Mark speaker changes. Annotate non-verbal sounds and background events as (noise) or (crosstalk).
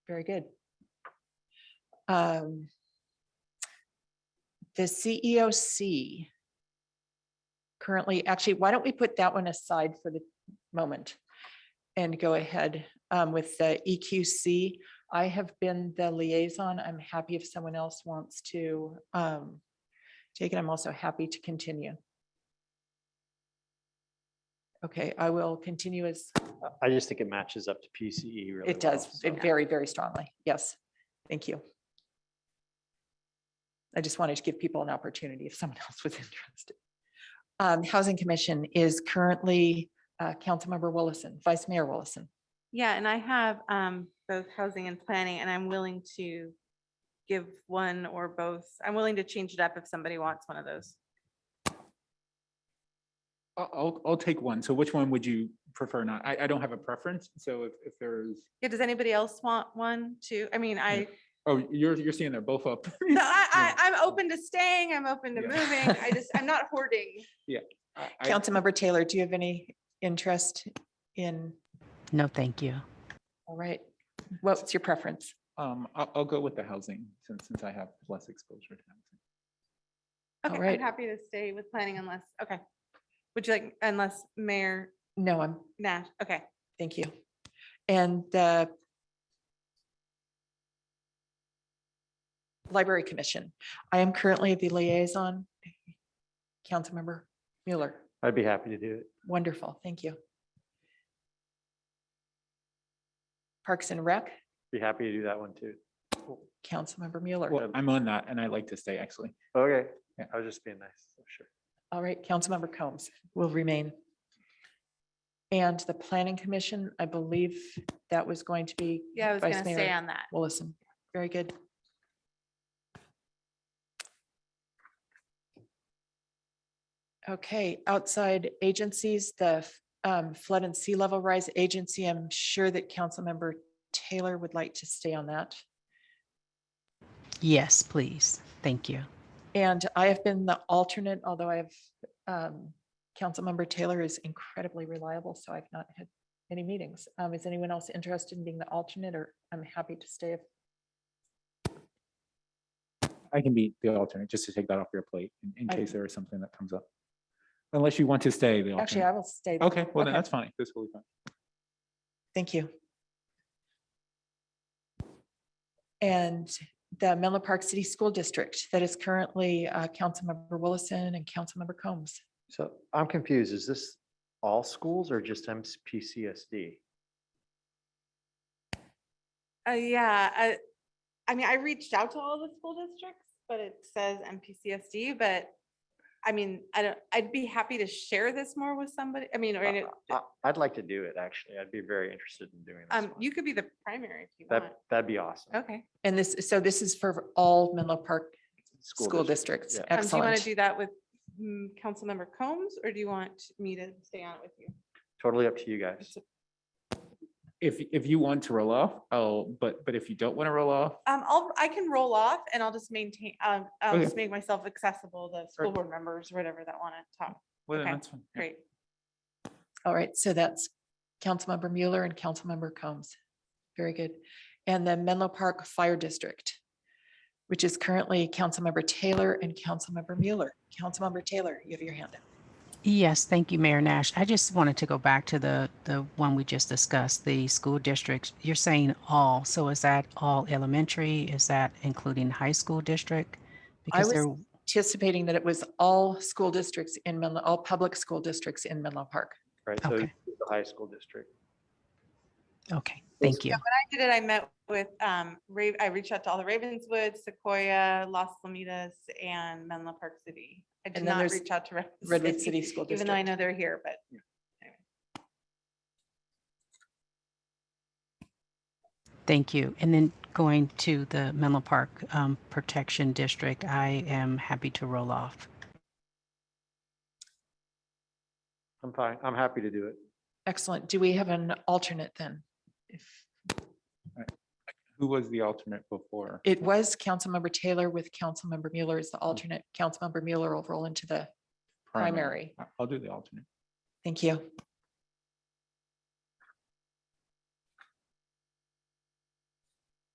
Speaker 1: Very good. Um, The CEOC. Currently, actually, why don't we put that one aside for the moment? And go ahead um, with the EQC. I have been the liaison. I'm happy if someone else wants to um, take it. I'm also happy to continue. Okay, I will continue as
Speaker 2: I just think it matches up to PCE really.
Speaker 1: It does,
Speaker 2: well,
Speaker 1: it
Speaker 2: so.
Speaker 1: very, very strongly. Yes. Thank you. I just wanted to give people an opportunity if someone (laughs) else was interested. Um, Housing Commission is currently uh, Councilmember Willison, Vice Mayor Willison.
Speaker 3: Yeah, and I have um both housing and planning, and I'm willing to give one or both. I'm willing to change it up if somebody wants one of those.
Speaker 4: I'll, I'll, I'll take one. So which one would you prefer not? I, I don't have a preference. So if, if there's,
Speaker 3: Yeah, does anybody else want one too? I
Speaker 1: (laughs)
Speaker 3: mean, I,
Speaker 4: oh, you're, you're seeing they're both up.
Speaker 3: no,
Speaker 4: (laughs)
Speaker 3: I, I, I'm open to staying, I'm open to
Speaker 4: Yeah.
Speaker 3: moving, I just, I'm not
Speaker 1: (laughs)
Speaker 3: hoarding.
Speaker 4: I- I-
Speaker 1: Councilmember Taylor, do you have any interest in,
Speaker 5: No, thank you.
Speaker 1: all right, what's your preference?
Speaker 4: Um, I'll, I'll go with the housing since, since I have less exposure to housing.
Speaker 3: Okay,
Speaker 1: right.
Speaker 3: I'm happy to stay with planning unless, okay. Would you like, unless Mayor
Speaker 1: No, I'm,
Speaker 3: Nash, okay.
Speaker 1: thank you. And the Library Commission, I am currently the liaison. Councilmember Mueller.
Speaker 2: I'd be happy to do it.
Speaker 1: Wonderful, thank you. Parks and Rec,
Speaker 2: Be happy to do that one too.
Speaker 1: Councilmember Mueller.
Speaker 4: Well, I'm on that and I like to stay actually.
Speaker 2: Okay,
Speaker 4: Yeah.
Speaker 2: I was just being nice, so sure.
Speaker 1: All right, Councilmember Combs will remain. And the Planning Commission, I believe that was going to be.
Speaker 3: Yeah, I was
Speaker 1: Vice
Speaker 3: gonna
Speaker 1: Mayor
Speaker 3: stay on that.
Speaker 1: Willison. Very good. Okay, outside agencies, the f- um, flood and sea level rise agency, I'm sure that Councilmember Taylor would like to stay on that.
Speaker 5: Yes, please. Thank you.
Speaker 1: And I have been the alternate, although I have, um, Councilmember Taylor is incredibly reliable, so I've not had any meetings. Um, is anyone else interested in being the alternate or I'm happy to stay if
Speaker 4: I can be the alternate, just to take that off your plate in, in
Speaker 1: I-
Speaker 4: case there is something that comes up. Unless you want to stay the
Speaker 1: Actually, I
Speaker 4: alternate.
Speaker 1: will stay. then.
Speaker 4: Okay, well then
Speaker 1: okay.
Speaker 4: that's fine. That's totally fine.
Speaker 1: Thank you. And the Menlo Park City School District that is currently uh, Councilmember Willison and Councilmember Combs.
Speaker 2: So I'm confused. Is this all schools or just MPCSD?
Speaker 3: Uh, yeah, I, I mean, I reached out to all the school districts, but it says MPCSD, but I mean, I don't, I'd be happy to share this more with somebody. I mean, or, in it-
Speaker 2: I- I'd like to do it, actually. I'd be very interested in doing this
Speaker 3: um,
Speaker 2: one.
Speaker 3: you could be the primary if you want.
Speaker 2: That, that'd be awesome.
Speaker 3: Okay.
Speaker 1: And this, so this is for all Menlo Park school
Speaker 2: district,
Speaker 1: districts.
Speaker 2: yeah.
Speaker 3: Um, Do you want to
Speaker 1: Excellent.
Speaker 3: do that with mm, Councilmember Combs or do you want me to stay on it with you?
Speaker 2: Totally up to you guys.
Speaker 4: If, if you want to roll off, oh, but, but if you don't want to roll off,
Speaker 3: Um, I'll, I can roll off and I'll just maintain, um, I'll
Speaker 4: Okay.
Speaker 3: just make myself accessible to school
Speaker 4: Right.
Speaker 3: board members, or whatever that want to talk.
Speaker 4: well, then
Speaker 3: Okay,
Speaker 4: that's fine. Yeah.
Speaker 3: Great.
Speaker 1: All right, so that's Councilmember Mueller and Councilmember Combs. Very good. And the Menlo Park Fire District, which is currently Councilmember Taylor and Councilmember Mueller. Councilmember Taylor, you have your hand up.
Speaker 5: Yes, thank you, Mayor Nash. I just wanted to go back to the, the one we just discussed, the school districts. You're saying all, so is that all elementary? Is that including high school district? Because
Speaker 1: was-
Speaker 5: there,
Speaker 1: anticipating that it was all school districts in Menlo, all public school districts in Menlo Park.
Speaker 2: Right, so
Speaker 5: Okay.
Speaker 2: the high school district.
Speaker 5: okay, thank you.
Speaker 3: I did it, I met with, um, Ra- I reached out to all the Ravenswood, Sequoia, Los Lomitas, and Menlo Park City. I did
Speaker 1: And then
Speaker 3: not
Speaker 1: there's
Speaker 3: reach out to
Speaker 1: Redwood City School
Speaker 3: Even though I
Speaker 1: District.
Speaker 3: know they're here, but
Speaker 5: Thank you. And then going to the Menlo Park um, Protection District, I am happy to roll off.
Speaker 2: I'm fine. I'm happy to do it.
Speaker 1: Excellent. Do we have an alternate then? If
Speaker 4: Who was the alternate before?
Speaker 1: It was Councilmember Taylor with Councilmember Mueller as the alternate. Councilmember Mueller will roll into the primary.
Speaker 4: I- I'll do the alternate.
Speaker 1: Thank you.